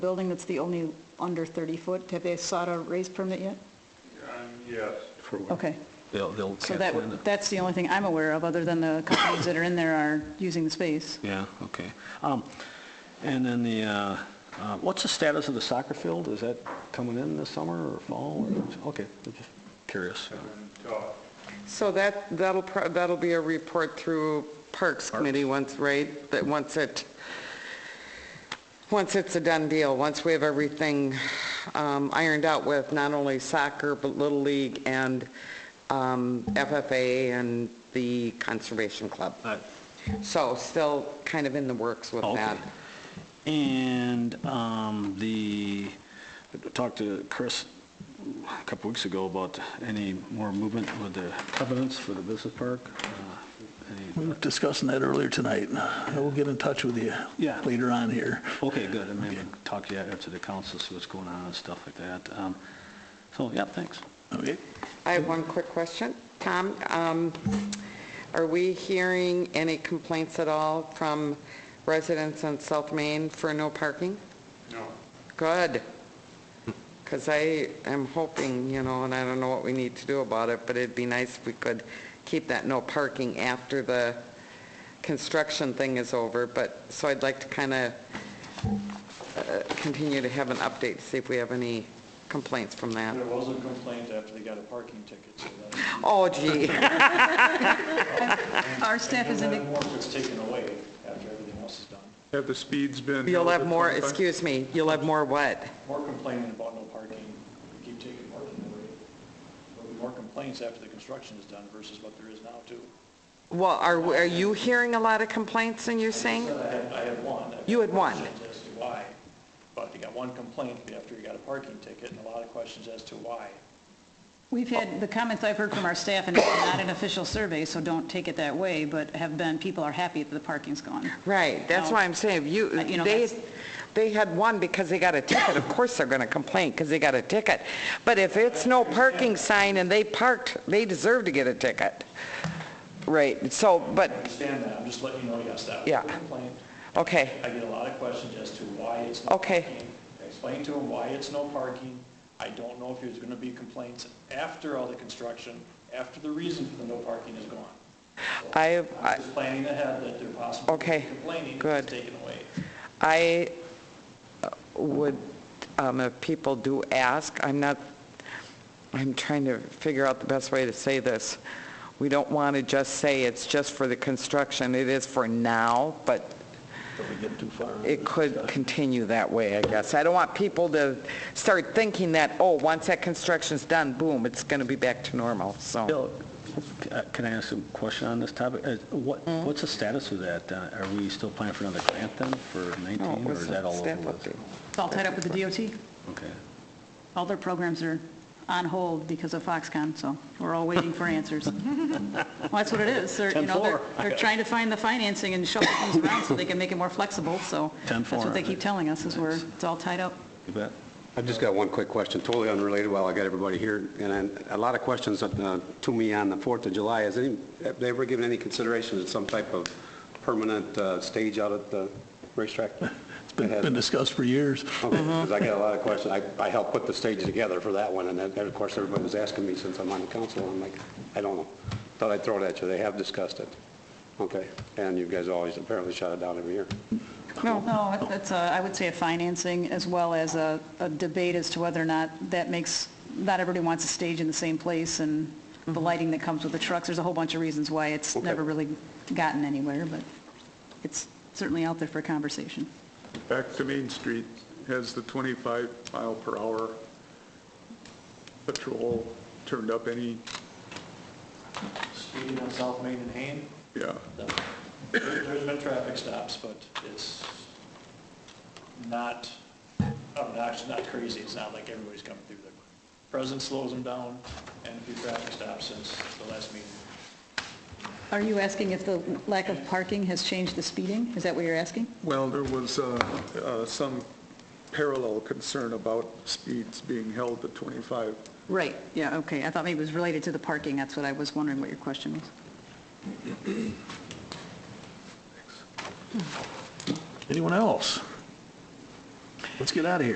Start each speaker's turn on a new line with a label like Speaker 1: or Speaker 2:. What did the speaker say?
Speaker 1: building that's the only under 30 foot? Have they sought a raise permit yet?
Speaker 2: Um, Yes.
Speaker 3: for what?
Speaker 1: Okay,
Speaker 3: They'll, they'll
Speaker 1: so
Speaker 3: cancel in
Speaker 1: that, that's the only thing I'm aware of, other than the companies that are in there are using the space.
Speaker 3: Yeah, okay. Um, And then the, uh, uh, what's the status of the soccer field? Is that coming in this summer or fall? or- Okay, I'm just curious.
Speaker 2: So,
Speaker 4: So that, that'll, pro- that'll be a report through Parks Committee once, right? That once it, once it's a done deal, once we have everything um, ironed out with not only soccer, but Little League and um, FFA and the Conservation Club.
Speaker 3: All right.
Speaker 4: So still kind of in the works with
Speaker 3: Oh, Uh. okay.
Speaker 4: that.
Speaker 3: And um, the, I talked to Chris a couple weeks ago about any more movement with the covenants for the business park. Uh,
Speaker 5: We
Speaker 3: any-
Speaker 5: were discussing that earlier tonight. I will get in touch with you
Speaker 3: Yeah.
Speaker 5: later on here.
Speaker 3: Okay, good, I may talk to you after the council, see what's going on and stuff like that. Um, So, yeah, thanks.
Speaker 5: Okay?
Speaker 4: I have one quick question. Tom, um, are we hearing any complaints at all from residents on South Main for no parking?
Speaker 2: no,
Speaker 4: Good. Because I am hoping, you know, and I don't know what we need to do about it, but it'd be nice if we could keep that no parking after the construction thing is over, but, so I'd like to kind of continue to have an update, to see if we have any complaints from that.
Speaker 6: There was a complaint after they got a parking ticket, so that,
Speaker 4: Oh gee.
Speaker 1: Our staff is
Speaker 6: and
Speaker 1: in,
Speaker 6: then more was taken away after everything else is done.
Speaker 2: have the speeds been?
Speaker 4: You'll have
Speaker 2: over
Speaker 4: more,
Speaker 2: 25?
Speaker 4: excuse me, you'll have more what?
Speaker 6: More complaining about no parking, we keep taking parking away. There'll be more complaints after the construction is done versus what there is now, too.
Speaker 4: Well, are, are you hearing a lot of complaints and you're saying?
Speaker 6: I had, I had one.
Speaker 4: You had one.
Speaker 6: Questions As to why, but they got one complaint after you got a parking ticket, and a lot of questions as to why.
Speaker 1: we've had, the comments I've heard from our staff, and it's not an official survey, so don't take it that way, but have been, people are happy that the parking's gone.
Speaker 4: Right, that's
Speaker 1: No.
Speaker 4: why I'm saying, if you,
Speaker 1: Uh, you know,
Speaker 4: they,
Speaker 1: that's-
Speaker 4: they had one because they got a ticket, of course they're gonna complain because they got a ticket. But if it's no parking sign and they parked, they deserve to get a ticket. Right, so,
Speaker 6: I
Speaker 4: but,
Speaker 6: understand that, I'm just letting you know, yes, that was
Speaker 4: Yeah.
Speaker 6: a complaint.
Speaker 4: okay,
Speaker 6: I get a lot of questions as to why it's no
Speaker 4: Okay.
Speaker 6: parking. I explain to them why it's no parking. I don't know if there's going to be complaints after all the construction, after the reason for the no parking is gone.
Speaker 4: I, I-
Speaker 6: I'm just planning ahead that they're possibly
Speaker 4: Okay,
Speaker 6: complaining if
Speaker 4: good.
Speaker 6: it's taken away.
Speaker 4: I uh, would, um, if people do ask, I'm not, I'm trying to figure out the best way to say this. We don't want to just say it's just for the construction, it is for now, but
Speaker 5: Don't we get too far.
Speaker 4: it could continue that way, I guess. I don't want people to start thinking that, oh, once that construction's done, boom, it's going to be back to normal, so.
Speaker 3: Bill, uh, can I ask a question on this topic? Uh, What,
Speaker 4: Mm-hmm.
Speaker 3: what's the status of that? Uh, Are we still planning for another grant then for 19,
Speaker 4: No, it
Speaker 3: or
Speaker 4: was
Speaker 3: is that all over
Speaker 4: staff
Speaker 3: with?
Speaker 4: update.
Speaker 1: It's all tied up with the DOT.
Speaker 3: Okay.
Speaker 1: All their programs are on hold because of Foxconn, so we're all waiting for answers. Well, that's what it is. They're, you know, they're,
Speaker 3: 10-4.
Speaker 1: they're trying to find the financing and shuffle things around so they can make it more flexible, so. That's
Speaker 3: 10-4.
Speaker 1: what they keep telling us, is we're, it's all tied up.
Speaker 3: You bet.
Speaker 7: I've just got one quick question, totally unrelated while I got everybody here, and I- a lot of questions uh, to me on the 4th of July. Has any, have they ever given any consideration to some type of permanent uh, stage out at the racetrack?
Speaker 5: It's been been discussed for years.
Speaker 7: Because I got a lot of questions. I I helped put the stage together for that one, and then, of course, everybody was asking me since I'm on the council, I'm like, I don't know. Thought I'd throw it at you. They have discussed it. Okay, and you guys always apparently shut it down every year.
Speaker 1: No, that's, I would say a financing as well as a, a debate as to whether or not that makes, not everybody wants a stage in the same place and the lighting that comes with the trucks. There's a whole bunch of reasons why it's
Speaker 7: Okay.
Speaker 1: never really gotten anywhere, but it's certainly out there for conversation.
Speaker 2: Back to Main Street, has the 25 mile per hour patrol turned up any,
Speaker 6: Speeding on South Main and Hain,
Speaker 2: yeah,
Speaker 6: the- there's been traffic stops, but it's not obnoxious, not crazy. It's not like everybody's coming through there. President slows them down, and a few traffic stops since the last meeting.
Speaker 1: Are you asking if the lack of parking has changed the speeding? Is that what you're asking?
Speaker 2: well, there was uh, uh, some parallel concern about speeds being held to 25.
Speaker 1: Right, yeah, okay. I thought maybe it was related to the parking. That's what I was wondering what your question was.
Speaker 5: Anyone else? Let's get out of here.